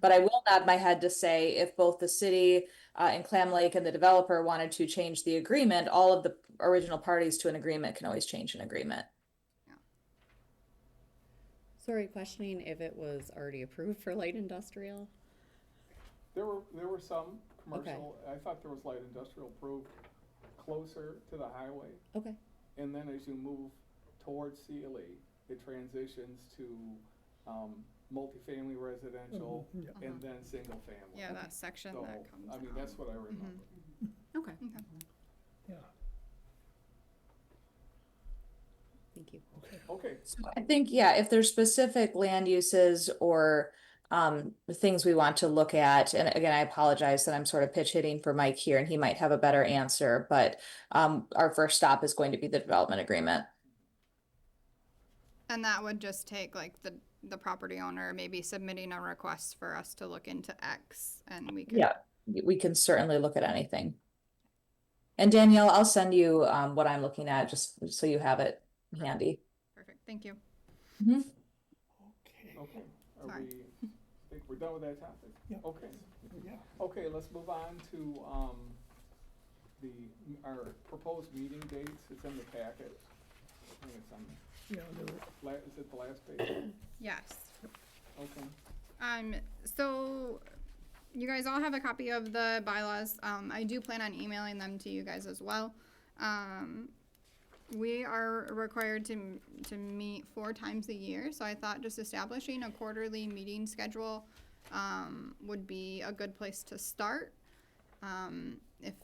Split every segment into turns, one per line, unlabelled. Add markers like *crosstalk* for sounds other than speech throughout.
But I will nod my head to say if both the city uh, and Clam Lake and the developer wanted to change the agreement, all of the original parties to an agreement can always change an agreement.
So are you questioning if it was already approved for light industrial?
There were, there were some commercial, I thought there was light industrial approved closer to the highway.
Okay,
And then as you move towards CLE, it transitions to, um, multifamily residential and then single family.
Yeah,
Okay.
that section
So,
that comes
I mean,
out. Mm-hmm.
that's what I remember.
okay,
Okay.
Yeah,
thank you.
okay.
Okay,
So I think, yeah, if there's specific land uses or um, things we want to look at, and again, I apologize that I'm sort of pitch hitting for Mike here and he might have a better answer, but um, our first stop is going to be the development agreement.
And that would just take like the, the property owner maybe submitting a request for us to look into X and we could.
Yeah, we can certainly look at anything. And Danielle, I'll send you um, what I'm looking at, just so you have it handy.
Perfect, thank you.
okay, are
Sorry.
we, think we're done with that topic?
Yep.
Okay,
Yeah,
okay, let's move on to, um, the, our proposed meeting dates, it's in the packet. I think it's on,
yeah, there were-
la- is it the last page?
Yes.
Okay.
Um, so you guys all have a copy of the bylaws. Um, I do plan on emailing them to you guys as well. Um, we are required to, to meet four times a year, so I thought just establishing a quarterly meeting schedule um, would be a good place to start. Um, if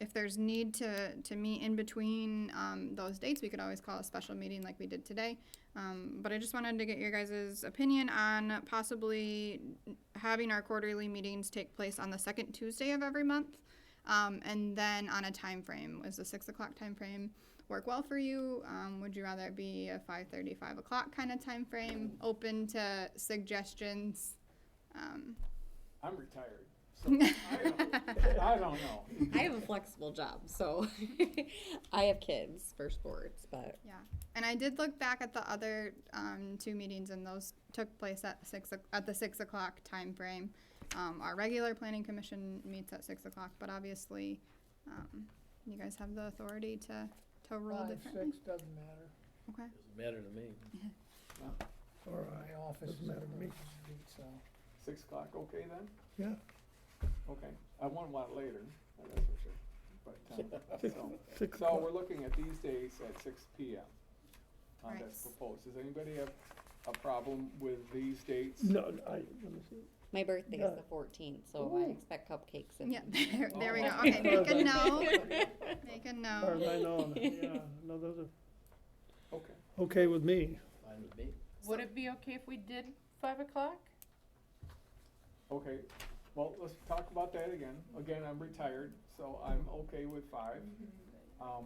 if there's need to to meet in between um, those dates, we could always call a special meeting like we did today. Um, but I just wanted to get your guys' opinion on possibly having our quarterly meetings take place on the second Tuesday of every month. Um, and then on a time frame, is the six o'clock time frame work well for you? Um, would you rather it be a 5.30, 5 o'clock kind of time frame? Open to suggestions. Um,
I'm retired, so I don't, I don't know.
I have a flexible job, so *laughs* I have kids for sports, but
Yeah, and I did look back at the other um, two meetings, and those took place at six o- at the six o'clock time frame. Um, our regular planning commission meets at six o'clock, but obviously, um, you guys have the authority to to roll
five,
differently.
six, doesn't matter,
Okay.
Doesn't matter to me.
or my office is at Main Street, so,
Six o'clock, okay then?
yeah.
Okay, I want one later, that's for sure. But, um, so,
Six
so
o'clock.
we're looking at these days at six P M. Um, that's
Right.
proposed. Does anybody have a problem with these dates?
No, I, let me see,
my birthday is
Yeah.
the fourteenth, so
Ooh.
I expect cupcakes and.
Yeah, *laughs* there, there we go.
Oh.
Okay, make a no. Make a
as far as
no.
I know, yeah, no, those are
Okay,
okay with me.
Fine with me.
Would it be okay if we did five o'clock?
okay, well, let's talk about that again. Again, I'm retired, so I'm okay with five. Um,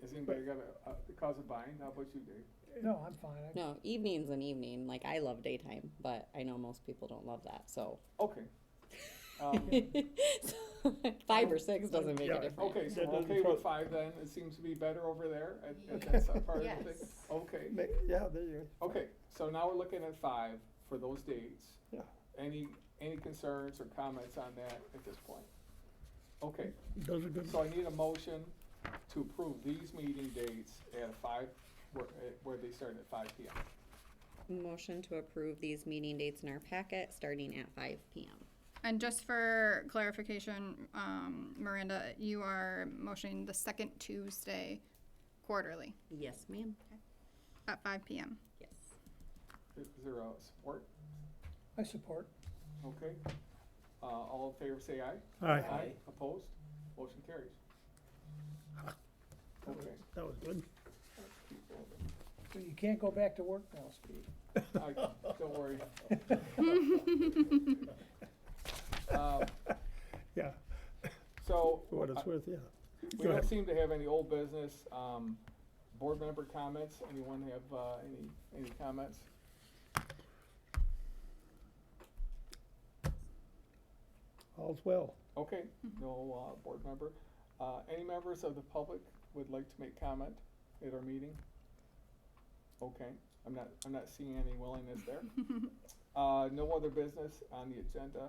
has anybody got a, a cause of buying? How about you, Dave?
No, I'm fine, I-
No, evening's an evening, like I love daytime, but I know most people don't love that, so.
Okay. Um,
*laughs* Five or six doesn't make
Yeah.
a difference.
Okay, so
*laughs* That
we're
doesn't
okay with
trouble-
five then, it seems to be better over there, at- at
Yeah.
that side part of the thing.
Yes.
Okay,
ma- yeah, there you go.
okay, so now we're looking at five for those dates.
Yeah.
Any, any concerns or comments on that at this point? Okay,
Those are good,
so I need a motion to approve these meeting dates at five, where, at- where they start at five P M.
Motion to approve these meeting dates in our packet, starting at five P M.
And just for clarification, um, Miranda, you are motioning the second Tuesday quarterly
Yes, ma'am.
at five p.m.
Yes.
Is there a support?
I support.
Okay, uh, all in favor, say aye.
Aye,
Aye, opposed, motion carries. Okay.
that was good. You can't go back to work now, Steve.
I, don't
*laughs*
worry. Uh, Um,
Yeah,
So,
for what it's
I-
worth, yeah.
we
Go
don't
ahead.
seem to have any old business, um, board member comments, anyone have, uh, any, any comments?
All's well.
Okay, no, uh, board member, uh, any members of the public would like to make comment at our meeting? Okay, I'm not, I'm not seeing any willingness there. Uh, no other business on the agenda.